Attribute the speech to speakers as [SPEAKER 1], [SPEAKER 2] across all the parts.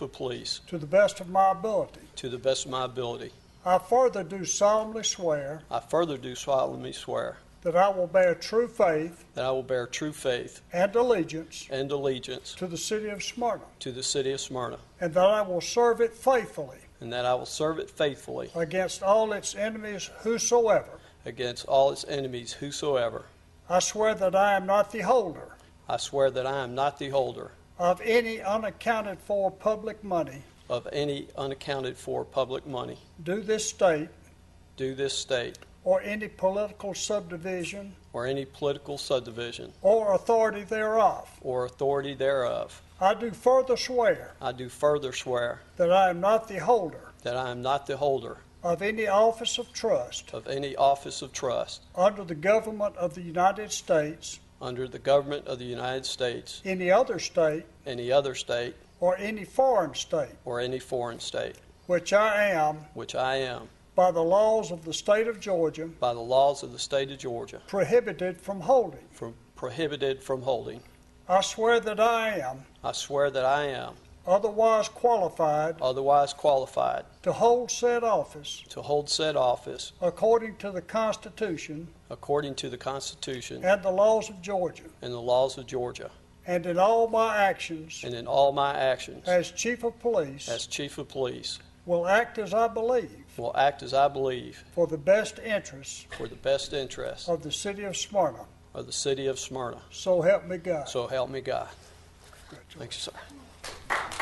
[SPEAKER 1] the police
[SPEAKER 2] to the best of my ability.
[SPEAKER 1] to the best of my ability.
[SPEAKER 2] I further do solemnly swear
[SPEAKER 1] I further do solemnly swear
[SPEAKER 2] that I will bear true faith
[SPEAKER 1] that I will bear true faith
[SPEAKER 2] and allegiance
[SPEAKER 1] and allegiance
[SPEAKER 2] to the city of Smyrna,
[SPEAKER 1] to the city of Smyrna,
[SPEAKER 2] and that I will serve it faithfully
[SPEAKER 1] and that I will serve it faithfully
[SPEAKER 2] against all its enemies whosoever.
[SPEAKER 1] against all its enemies whosoever.
[SPEAKER 2] I swear that I am not the holder
[SPEAKER 1] I swear that I am not the holder
[SPEAKER 2] of any unaccounted for public money
[SPEAKER 1] of any unaccounted for public money
[SPEAKER 2] due this state
[SPEAKER 1] due this state
[SPEAKER 2] or any political subdivision
[SPEAKER 1] or any political subdivision
[SPEAKER 2] or authority thereof.
[SPEAKER 1] or authority thereof.
[SPEAKER 2] I do further swear
[SPEAKER 1] I do further swear
[SPEAKER 2] that I am not the holder
[SPEAKER 1] that I am not the holder
[SPEAKER 2] of any office of trust
[SPEAKER 1] of any office of trust
[SPEAKER 2] under the government of the United States,
[SPEAKER 1] under the government of the United States,
[SPEAKER 2] any other state,
[SPEAKER 1] any other state,
[SPEAKER 2] or any foreign state,
[SPEAKER 1] or any foreign state,
[SPEAKER 2] which I am,
[SPEAKER 1] which I am,
[SPEAKER 2] by the laws of the state of Georgia,
[SPEAKER 1] by the laws of the state of Georgia,
[SPEAKER 2] prohibited from holding.
[SPEAKER 1] from prohibited from holding.
[SPEAKER 2] I swear that I am
[SPEAKER 1] I swear that I am
[SPEAKER 2] otherwise qualified
[SPEAKER 1] otherwise qualified
[SPEAKER 2] to hold said office
[SPEAKER 1] to hold said office
[SPEAKER 2] according to the Constitution
[SPEAKER 1] according to the Constitution
[SPEAKER 2] and the laws of Georgia,
[SPEAKER 1] and the laws of Georgia,
[SPEAKER 2] and in all my actions
[SPEAKER 1] and in all my actions
[SPEAKER 2] as chief of police
[SPEAKER 1] as chief of police
[SPEAKER 2] will act as I believe
[SPEAKER 1] will act as I believe
[SPEAKER 2] for the best interests
[SPEAKER 1] for the best interests
[SPEAKER 2] of the city of Smyrna.
[SPEAKER 1] of the city of Smyrna.
[SPEAKER 2] So help me God.
[SPEAKER 1] So help me God. Thank you, sir.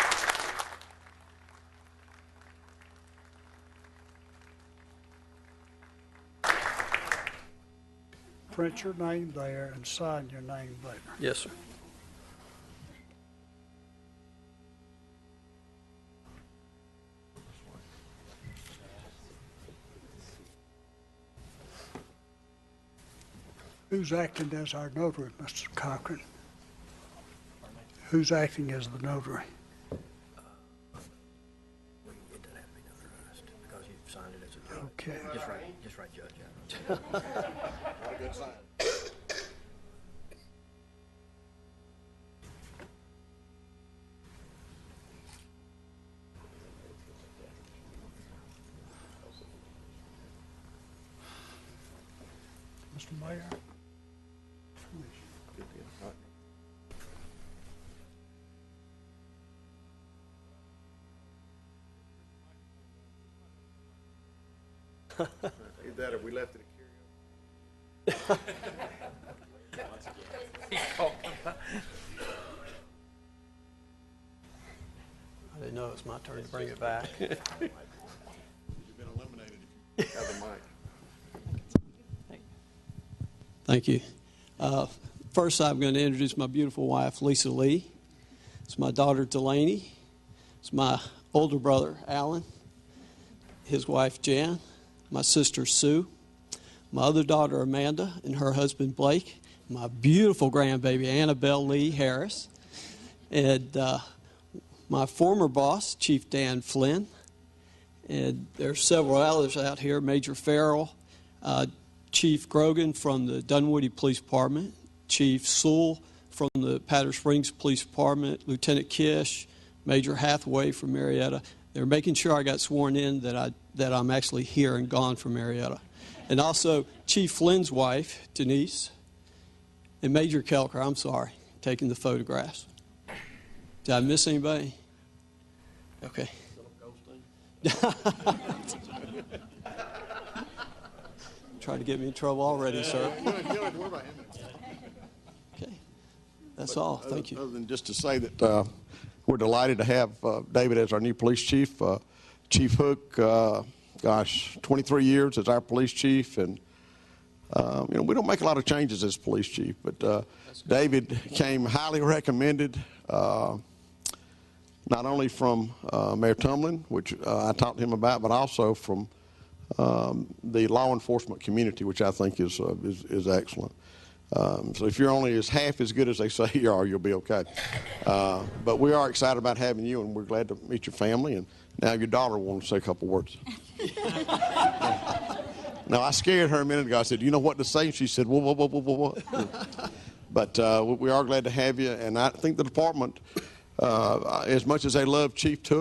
[SPEAKER 2] Print your name there and sign your name later.
[SPEAKER 1] Yes, sir.
[SPEAKER 2] Who's acting as our notary, Mr. Cochran? Who's acting as the notary?
[SPEAKER 3] Well, It doesn't have to be notarized, because you've signed it as a judge.
[SPEAKER 2] Okay.
[SPEAKER 3] Just write, just write judge. out.
[SPEAKER 2] Mr. Mayor?
[SPEAKER 4] Either that or we left it at karaoke.
[SPEAKER 1] I didn't know it was my turn to bring it back.
[SPEAKER 4] You've been eliminated if you have the mic.
[SPEAKER 1] Thank you. Uh, First, I'm going to introduce my beautiful wife, Lisa Lee. It's my daughter, Delaney. It's my older brother, Alan. His wife, Jan. My sister, Sue. My other daughter, Amanda, and her husband, Blake. My beautiful grandbaby, Annabelle Lee Harris. And uh, my former boss, Chief Dan Flynn. And there are several others out here Major Farrell, uh, Chief Grogan from the Dunwoody Police Department, Chief Sewell from the Powder Springs Police Department, Lieutenant Kish, Major Hathaway from Marietta. They're making sure I got sworn in that, I, that I'm actually here and gone from Marietta. And also Chief Flynn's wife, Denise, and Major Kelker, I'm sorry, taking the photographs. Did I miss anybody? Okay. Trying to get me in trouble already, sir.
[SPEAKER 4] You don't- you don't have to worry about him.
[SPEAKER 1] Okay. That's all.
[SPEAKER 4] Other-
[SPEAKER 1] Oh, Thank you.
[SPEAKER 4] Other than just to say that uh, we're delighted to have uh, David as our new police chief. Uh, Chief Hook, uh, gosh, 23 years as our police chief, and uh, you know we don't make a lot of changes as police chief, but uh, David came highly recommended. Uh, not only from uh, Mayor Tumlin, which uh, I talked to him about, but also from um, the law enforcement community, which I think is uh, is, is excellent. Um, so if you're only as half as good as they say you are, you'll be okay. Uh, but we are excited about having you, and we're glad to meet your family. And now your daughter wants to say a couple words. now I scared her a minute ago. I said, "You know what to say?" She said, "Whoa, whoa, whoa, whoa, whoa, whoa." But uh, we- we are glad to have you, and I think the department Uh, as much as they love Chief Took.